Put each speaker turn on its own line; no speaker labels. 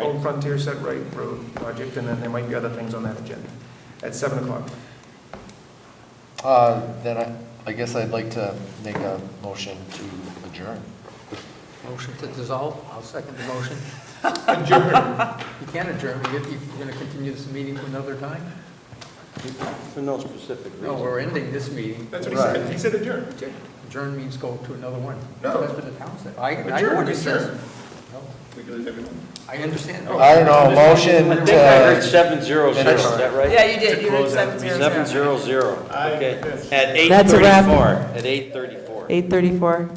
Old Frontier Set Right Road project, and then there might be other things on that agenda at 7 o'clock.
Uh, Then I, I guess I'd like to make a motion to adjourn.
Motion to dissolve, I'll second the motion.
Adjourn.
You can adjourn, if you're going to continue this meeting to another time?
For no specific reason.
No, we're ending this meeting.
That's what he said. He said adjourn.
Adjourn means go to another one.
No.
That's what the town said. I, I know
Adjourn,
what it says.
adjourn.
No,
We can lose everyone.
I understand.
Oh.
I don't know, a motion
I think I heard
to,
seven zero zero, is that right?
Yeah, you did, you
To
did
close out
seven
the
zero zero.
Seven zero zero,
I-
okay.
yes.
At eight
That's a wrap.
thirty-four, at eight thirty-four.
Eight thirty-four.